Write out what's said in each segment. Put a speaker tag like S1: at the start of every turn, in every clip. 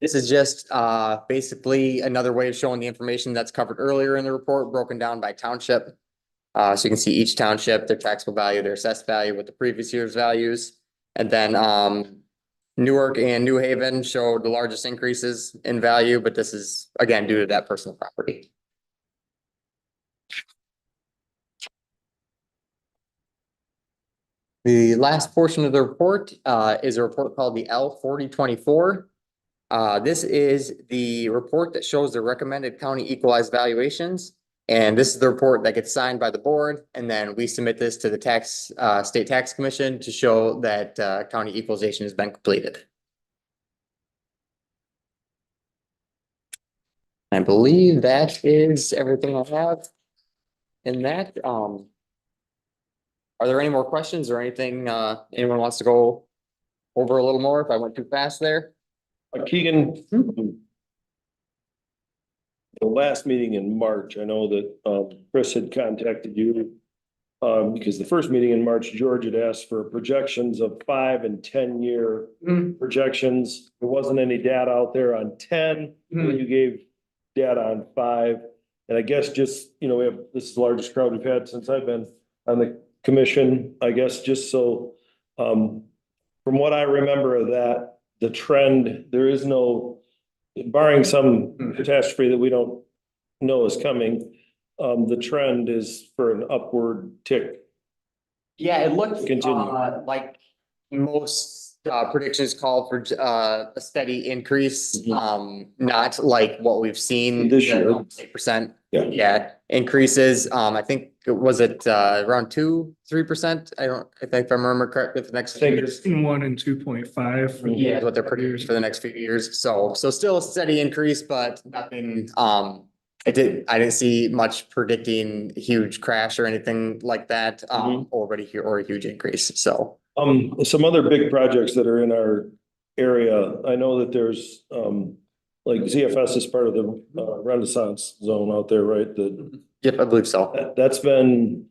S1: This is just uh basically another way of showing the information that's covered earlier in the report, broken down by township. Uh, so you can see each township, their taxable value, their assessed value with the previous year's values. And then um Newark and New Haven showed the largest increases in value, but this is again due to that personal property. The last portion of the report uh is a report called the L forty twenty-four. Uh, this is the report that shows the recommended county equalized valuations. And this is the report that gets signed by the board, and then we submit this to the tax, uh, state tax commission to show that, uh, county equalization has been completed. I believe that is everything I have. in that, um. Are there any more questions or anything, uh, anyone wants to go over a little more if I went too fast there?
S2: Uh, Keegan. The last meeting in March, I know that um, Chris had contacted you. um, because the first meeting in March, George had asked for projections of five and ten year projections. There wasn't any data out there on ten,
S1: Mhm.
S2: you gave data on five. And I guess just, you know, we have, this is the largest crowd we've had since I've been on the commission, I guess, just so. Um, from what I remember of that, the trend, there is no, barring some catastrophe that we don't know is coming. Um, the trend is for an upward tick
S1: Yeah, it looked
S2: Continue.
S1: uh, like most uh, predictions called for uh, a steady increase,
S2: Mhm.
S1: um, not like what we've seen.
S2: This year.
S1: Eight percent.
S2: Yeah.
S1: Yeah, increases. Um, I think, it was it uh, around two, three percent? I don't, I think if I remember correctly, the next
S2: I
S1: few
S2: think
S1: years.
S2: it's-
S3: One and two point five.
S1: Yeah, is what they're predicting for the next few years. So, so still a steady increase, but nothing, um, I did, I didn't see much predicting huge crash or anything like that,
S2: Mm-hmm.
S1: um, already here or a huge increase. So.
S2: Um, some other big projects that are in our area, I know that there's, um, like ZFS is part of the uh, Renaissance Zone out there, right? The,
S1: Yep, I believe so.
S2: that- that's been,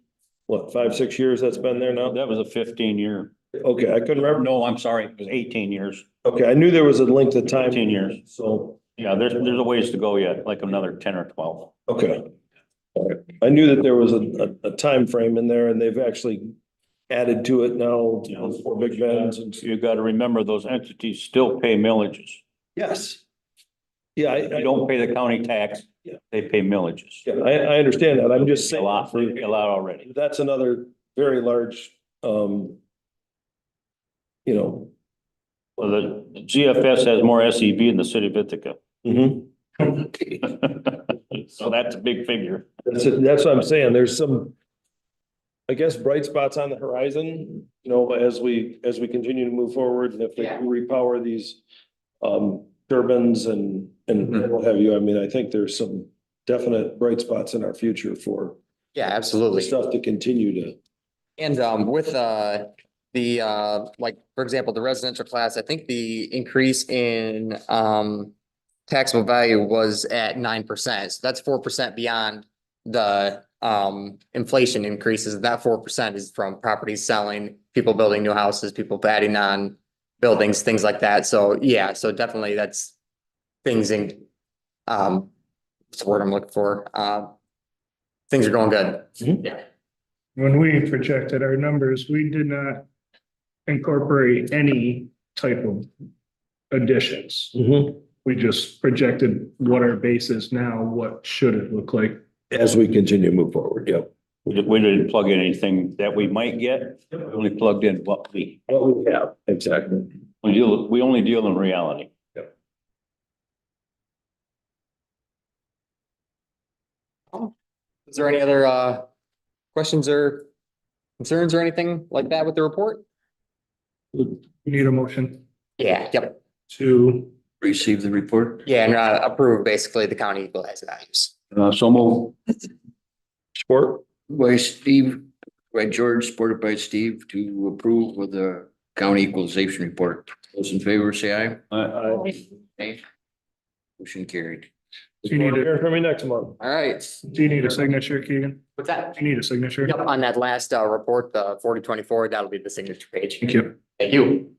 S2: what, five, six years that's been there now?
S4: That was a fifteen year.
S2: Okay, I couldn't remember.
S4: No, I'm sorry, it was eighteen years.
S2: Okay, I knew there was a length of time.
S4: 15 years.
S2: So,
S4: Yeah, there's, there's a ways to go yet, like another ten or twelve.
S2: okay. All right. I knew that there was a, a, time frame in there and they've actually added to it now, those four big bands and.
S4: You gotta remember, those entities still pay millages.
S2: Yes. Yeah, I,
S4: They
S2: I
S4: don't pay the county tax,
S2: Yeah.
S4: they pay millages.
S2: Yeah, I, I understand that. I'm just
S4: A
S2: saying.
S4: lot, a lot already.
S2: That's another very large, um, you know.
S4: Well, the GFS has more SEV than the city of Ithaca. Mm-hmm. So that's a big figure.
S2: That's, that's what I'm saying. There's some, I guess, bright spots on the horizon, you know, as we, as we continue to move forward and if they
S1: Yeah.
S2: repower these um, turbines and, and
S4: Mm-hmm.
S2: what have you. I mean, I think there's some definite bright spots in our future for
S1: Yeah,
S2: the
S1: absolutely.
S2: stuff to continue to.
S1: And um with uh the uh like, for example, the residential class, I think the increase in um taxable value was at nine percent. So that's four percent beyond the um inflation increases. That four percent is from properties selling, people building new houses, people adding on buildings, things like that. So yeah, so definitely that's things in um what's the word I'm looking for? Uh, things are going good.
S3: When we projected our numbers, we did not incorporate any type of additions.
S4: Mm-hmm.
S3: We just projected what our base is now, what should it look like?
S2: As we continue to move forward, yeah.
S4: We didn't- we didn't plug in anything that we might get, we only plugged in what we,
S2: What we have. Exactly.
S4: we deal, we only deal in reality.
S1: Is there any other uh questions or concerns or anything like that with the report?
S3: You need a motion
S1: Yeah. Yep,
S3: to,
S4: Receive the report?
S1: yeah, and uh approve basically the county equalized values.
S4: Uh, so move.
S2: Sport?
S5: by Steve, by George, supported by Steve to approve of the county equalization report. Those in favor, say aye. Aye. Motion carried.
S3: do you need a,
S2: Hear from me next month.
S1: All right,
S3: do you need a signature, Keegan?
S1: what's that?
S3: Do you need a signature?
S1: Yep, on that last uh report, the forty twenty-four, that'll be the signature page.
S3: Thank you.
S1: Thank you.